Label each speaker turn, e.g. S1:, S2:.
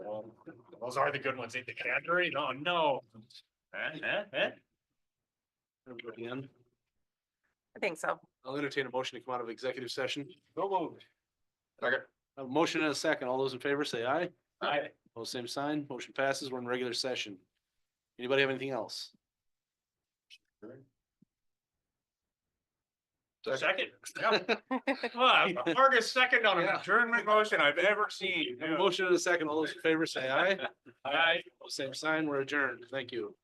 S1: Um, those are the good ones. Ain't the Cadbury? Oh, no. Eh, eh, eh.
S2: Everybody in?
S3: I think so.
S2: I'll entertain a motion to come out of executive session.
S1: Go moved. Second.
S2: A motion and a second. All those in favor say aye.
S1: Aye.
S2: All same sign. Motion passes. We're in regular session. Anybody have anything else?
S1: Second. Yep. Ah, the Hardest second on an
S2: Yeah.
S1: adjournment motion I've ever seen.
S2: A motion and a second. All those in favor say aye.
S1: Aye.
S2: All same sign. We're adjourned. Thank you.